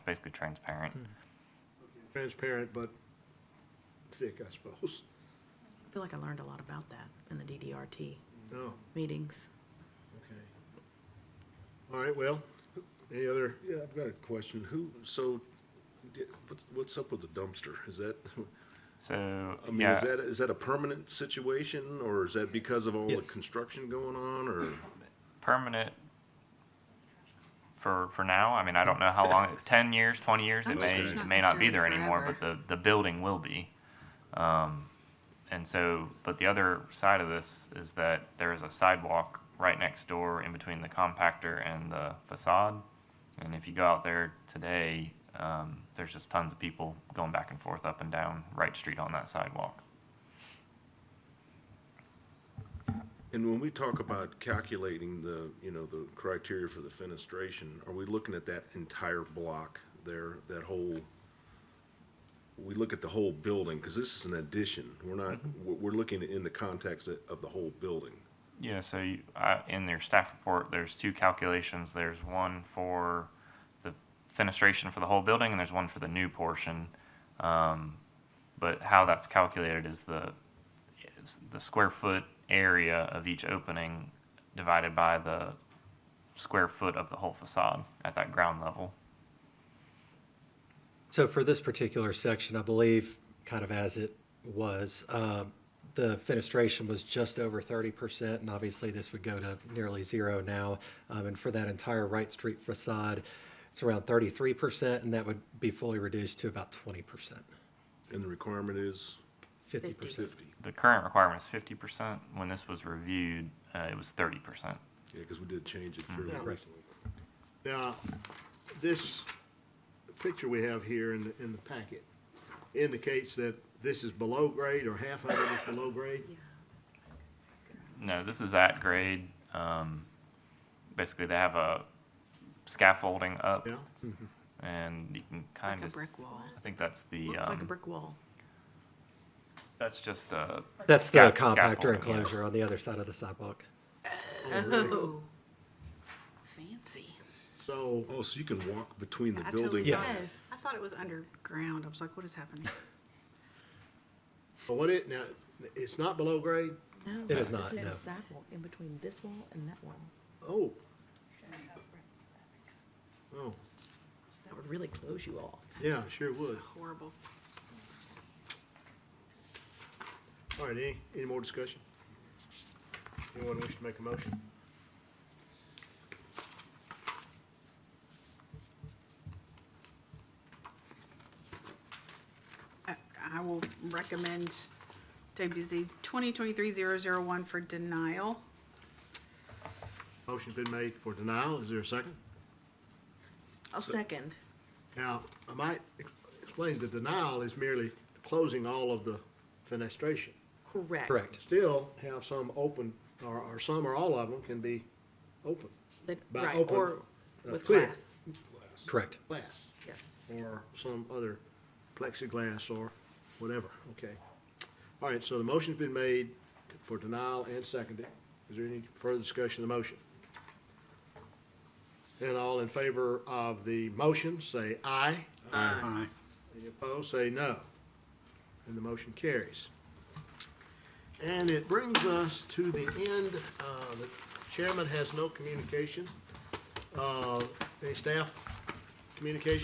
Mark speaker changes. Speaker 1: basically transparent.
Speaker 2: Hmm.
Speaker 3: transparent but thick, I suppose.
Speaker 2: I feel like I learned a lot about that in the DDRT
Speaker 3: No,
Speaker 2: meetings.
Speaker 3: okay. All right, well, any other,
Speaker 4: Yeah, I've got a question. Who, so, di- what's- what's up with the dumpster? Is that,
Speaker 1: So,
Speaker 4: I mean,
Speaker 1: yeah,
Speaker 4: is that, is that a permanent situation, or is that because of all the
Speaker 5: Yes.
Speaker 4: construction going on, or?
Speaker 1: permanent for, for now. I mean, I don't know how long, 10 years, 20 years, it
Speaker 2: I'm
Speaker 1: may,
Speaker 2: sure it's
Speaker 1: it
Speaker 2: not
Speaker 1: may not be there
Speaker 2: necessarily
Speaker 1: anymore, but the, the building will be. Um, and so, but the other side of this is that there is a sidewalk right next door in between the compactor and the facade. And if you go out there today, um, there's just tons of people going back and forth up and down Wright Street on that sidewalk.
Speaker 4: And when we talk about calculating the, you know, the criteria for the fenestration, are we looking at that entire block there, that whole? We look at the whole building, because this is an addition. We're not, we're, we're looking in the context of, of the whole building.
Speaker 1: Yeah, so you, uh, in your staff report, there's two calculations. There's one for the fenestration for the whole building, and there's one for the new portion. Um, but how that's calculated is the is the square foot area of each opening divided by the square foot of the whole facade at that ground level.
Speaker 5: So for this particular section, I believe, kind of as it was, um, the fenestration was just over thirty percent, and obviously this would go to nearly zero now. Um, And for that entire Wright Street facade, it's around thirty-three percent, and that would be fully reduced to about twenty percent,
Speaker 4: And the requirement is
Speaker 5: fifty percent.
Speaker 4: fifty.
Speaker 1: The current requirement is 50%. When this was reviewed, uh, it was 30%.
Speaker 4: Yeah, because we did change it fairly
Speaker 3: Yeah.
Speaker 4: recently.
Speaker 3: now, this picture we have here in, the- in the packet indicates that this is below grade or half of it is below grade?
Speaker 1: No, this is at grade. Um, basically, they have a scaffolding up,
Speaker 3: Yeah? Hmm.
Speaker 1: and you can kind
Speaker 2: Like a
Speaker 1: of.
Speaker 2: brick wall.
Speaker 1: I think that's the.
Speaker 2: Looks like a
Speaker 1: um,
Speaker 2: brick wall.
Speaker 1: That's just a.
Speaker 5: That's the
Speaker 1: sca-
Speaker 5: compactor
Speaker 1: scaffolding, yeah.
Speaker 5: enclosure on the other side of the sidewalk.
Speaker 2: Oh. Fancy.
Speaker 3: So,
Speaker 4: Oh, so you can walk between the
Speaker 6: I
Speaker 4: building?
Speaker 6: totally
Speaker 5: Yes.
Speaker 6: thought, I thought it was underground. I was like, what is happening?
Speaker 3: but what it, now, it's not below grade?
Speaker 2: No.
Speaker 5: It is not,
Speaker 2: This
Speaker 5: no.
Speaker 2: a sidewalk in between this wall and that wall.
Speaker 3: Oh. Oh,
Speaker 2: So That would really close you off.
Speaker 3: yeah, sure
Speaker 6: It's
Speaker 3: would.
Speaker 6: horrible.
Speaker 3: All right, any, any more discussion? Anyone wish to make a motion?
Speaker 6: I- I will recommend WZ 2023-001 for denial.
Speaker 3: Motion's been made for denial, is there a second?
Speaker 2: I'll second.
Speaker 3: Now, I might ex- explain, the denial is merely closing all of the fenestration.
Speaker 2: Correct.
Speaker 5: Correct.
Speaker 3: Still have some open, or, or some or all of them can be open,
Speaker 2: That-
Speaker 3: By
Speaker 2: Right,
Speaker 3: open,
Speaker 2: or
Speaker 3: uh,
Speaker 2: with
Speaker 3: clear.
Speaker 2: glass,
Speaker 5: Correct.
Speaker 3: glass,
Speaker 2: yes.
Speaker 3: or some other plexiglass or whatever, okay? All right, so the motion's been made for denial and seconded. Is there any further discussion of the motion? And all in favor of the motion, say aye.
Speaker 7: Aye.
Speaker 3: Any opposed, say no. And the motion carries. And it brings us to the end, uh, the chairman has no communication. Uh, Any staff communication?